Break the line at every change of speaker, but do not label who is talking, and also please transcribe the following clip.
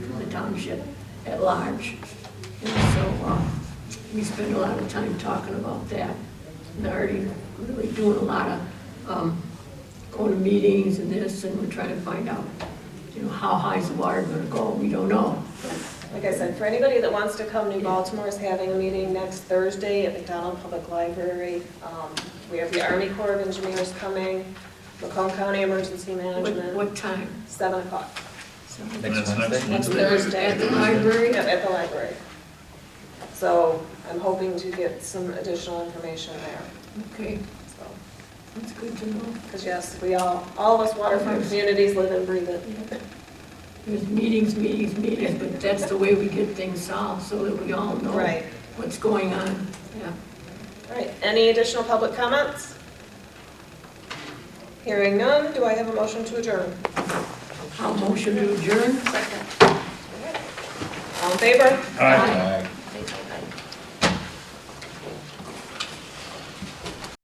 township at large. And so, uh, we spend a lot of time talking about that. And already really doing a lot of, um, going to meetings and this, and we're trying to find out, you know, how high's the water gonna go, we don't know.
Like I said, for anybody that wants to come, New Baltimore is having a meeting next Thursday at McDonald Public Library. Um, We have the Army Corps of Engineers coming, Macomb County Emergency
What,
Management,
what time?
7 o'clock.
So-
And that's
Next Wednesday?
Next
At
Thursday,
the library?
yeah, at the library. So I'm hoping to get some additional information there,
Okay,
so.
that's good to know.
Because yes, we all, all of us waterfront communities live and breathe it.
There's meetings, meetings, meetings, but that's the way we get things solved, so that we all know
Right.
what's going on. Yeah.
All right, any additional public comments? Hearing none, do I have a motion to adjourn?
I'll motion to adjourn.
All in favor?
Aye.